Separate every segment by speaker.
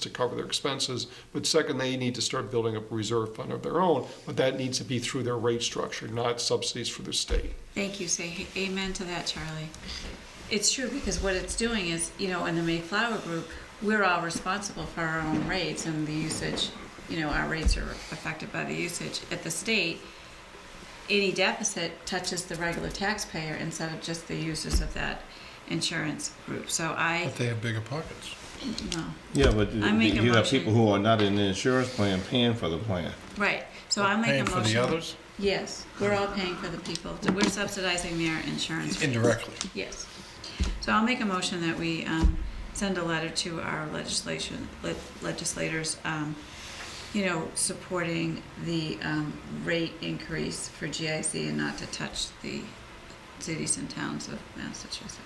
Speaker 1: to cover their expenses. But second, they need to start building up a reserve fund of their own, but that needs to be through their rate structure, not subsidies for the state.
Speaker 2: Thank you. Say amen to that, Charlie. It's true because what it's doing is, you know, in the Mayflower group, we're all responsible for our own rates and the usage. You know, our rates are affected by the usage. At the state, any deficit touches the regular taxpayer instead of just the users of that insurance group. So I,
Speaker 3: But they have bigger pockets.
Speaker 2: no,
Speaker 4: Yeah, but
Speaker 2: I make a
Speaker 4: you have
Speaker 2: motion.
Speaker 4: people who are not in the insurance plan paying for the plan.
Speaker 2: right. So I make a
Speaker 3: Paying
Speaker 2: motion.
Speaker 3: for the others
Speaker 2: Yes, we're all paying for the people. We're subsidizing their insurance. rates.
Speaker 3: indirectly.
Speaker 2: Yes. So I'll make a motion that we um, send a letter to our legislation, le- legislators, um, you know, supporting the um, rate increase for GIC and not to touch the cities and towns of Massachusetts.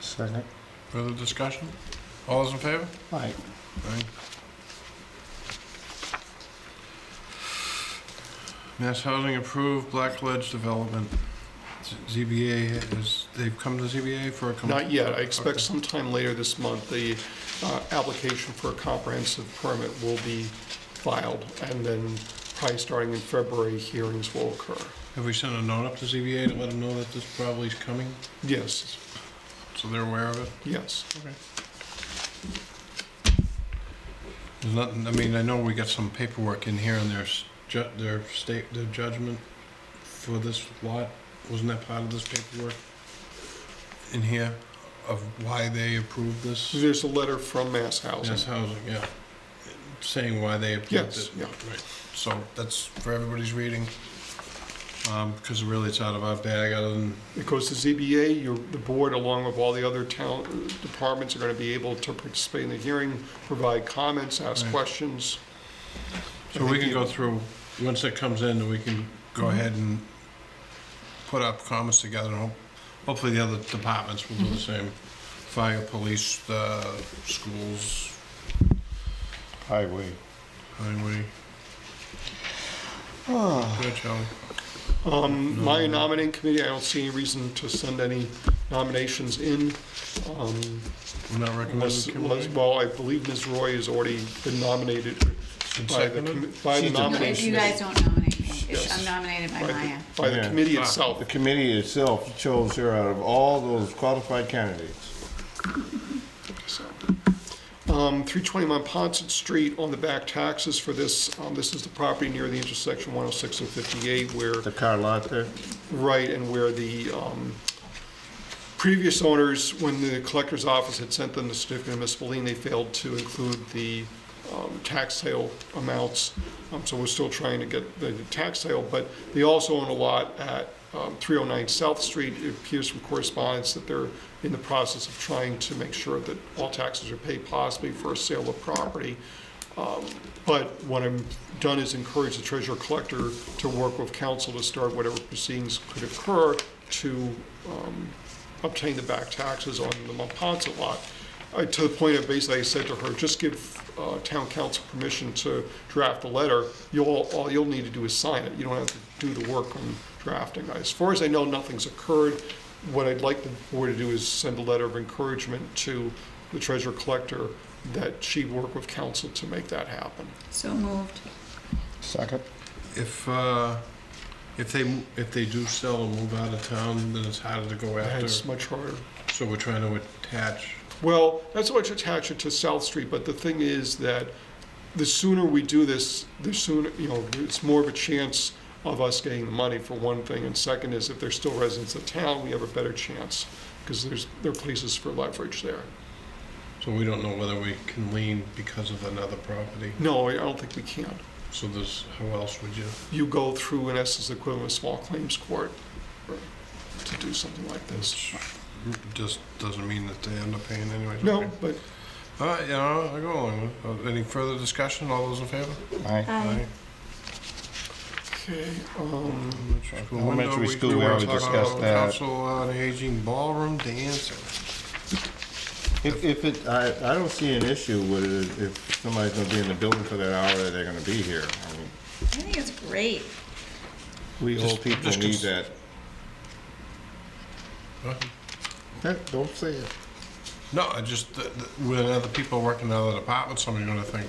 Speaker 4: Second.
Speaker 3: Further discussion? All those in favor?
Speaker 4: Right.
Speaker 3: Aye. Mass Housing approved Blackledge Development. Z- ZBA is, they've come to ZBA for a. com-
Speaker 1: Not yet, I expect
Speaker 3: Okay.
Speaker 1: sometime later this month, the uh, application for a comprehensive permit will be filed, and then probably starting in February, hearings will occur.
Speaker 3: Have we sent a note up to ZBA to let them know that this probably is coming,
Speaker 1: Yes,
Speaker 3: so they're aware of it?
Speaker 1: yes.
Speaker 3: There's nothing, I mean, I know we got some paperwork in here and there's ju- their state, their judgment for this lot, wasn't that part of this paperwork? In here, of why they approved
Speaker 1: So
Speaker 3: this,
Speaker 1: There's a letter from Mass Housing.
Speaker 3: this housing, yeah, saying why they approved
Speaker 1: Yes,
Speaker 3: it.
Speaker 1: yeah.
Speaker 3: Right, so that's for everybody's reading, um, because really it's out of our bag, other than,
Speaker 1: It goes to ZBA, your, the board, along with all the other town uh, departments, are gonna be able to participate in the hearing, provide comments, ask
Speaker 3: Right.
Speaker 1: questions.
Speaker 3: so we can go through, once it comes in, we can go ahead and put up comments together, and hope- hopefully the other departments will do the same. Fire, police, uh, schools,
Speaker 4: Highway.
Speaker 3: highway. Good, Charlie.
Speaker 1: Um, my nominating committee, I don't see any reason to send any nominations in, um,
Speaker 3: We're not
Speaker 1: unless,
Speaker 3: recommending
Speaker 1: unless-
Speaker 3: committee?
Speaker 1: well, I believe Ms. Roy has already been nominated by the, commi- by the
Speaker 2: No,
Speaker 4: She's a-
Speaker 2: if you
Speaker 1: nomination,
Speaker 2: guys don't nominate me, it's-
Speaker 1: Yes.
Speaker 2: I'm nominated by
Speaker 1: by
Speaker 2: Maya.
Speaker 1: the, by the
Speaker 4: Yeah.
Speaker 1: committee
Speaker 3: Ah.
Speaker 1: itself.
Speaker 4: The committee itself chose her out of all those qualified candidates.
Speaker 1: So, Um, 320 Monpont Street on the back taxes for this, um, this is the property near the intersection 106 and 58 where,
Speaker 4: The car lot there.
Speaker 1: right, and where the um, previous owners, when the collector's office had sent them the certificate of municipal lien, they failed to include the um, tax sale amounts. Um, So we're still trying to get the tax sale, but they also own a lot at um, 309 South Street. It appears from correspondence that they're in the process of trying to make sure that all taxes are paid possibly for a sale of property. Um, But what I'm done is encourage the treasurer collector to work with council to start whatever proceedings could occur to um, obtain the back taxes on the Monpont lot. I- To the point of basically, I said to her, just give uh, town council permission to draft the letter. You'll, all you'll need to do is sign it. You don't have to do the work on drafting. As far as I know, nothing's occurred. What I'd like the board to do is send a letter of encouragement to the treasurer collector that she work with council to make that happen.
Speaker 2: So moved.
Speaker 4: Second.
Speaker 3: If, uh, if they, mo- if they do sell or move out of town, then it's harder to go after,
Speaker 1: It's much harder.
Speaker 3: so we're trying to attach.
Speaker 1: Well, that's why it's attached it to South Street, but the thing is that the sooner we do this, the sooner, you know, it's more of a chance of us getting the money for one thing, and second is if they're still residents of town, we have a better chance, because there's, there are places for leverage there.
Speaker 3: So we don't know whether we can lean because of another property.
Speaker 1: No, I don't think we can.
Speaker 3: So there's, how else would you?
Speaker 1: You go through, in essence, the equivalent of small claims court to do something like this.
Speaker 3: Just doesn't mean that they end up paying anyway.
Speaker 1: No, but
Speaker 3: All right, yeah, I'll I'll go along with it. Uh, Any further discussion? All those in favor?
Speaker 4: Aye.
Speaker 1: Okay, um,
Speaker 4: Elementary
Speaker 3: Window,
Speaker 4: school,
Speaker 3: do
Speaker 4: we
Speaker 3: wanna
Speaker 4: already
Speaker 3: talk about
Speaker 4: discussed that.
Speaker 3: Council on Aging Ballroom Dancer.
Speaker 4: If, if it, I, I don't see an issue with it if somebody's gonna be in the building for that hour that they're gonna be here. I mean,
Speaker 2: I think it's great.
Speaker 4: We
Speaker 3: Just-
Speaker 4: old people
Speaker 3: just
Speaker 4: need
Speaker 3: cons-
Speaker 4: that.
Speaker 3: Huh?
Speaker 4: Eh, Don't say it.
Speaker 3: No, I just, th- th- when other people work in other departments, somebody's gonna think,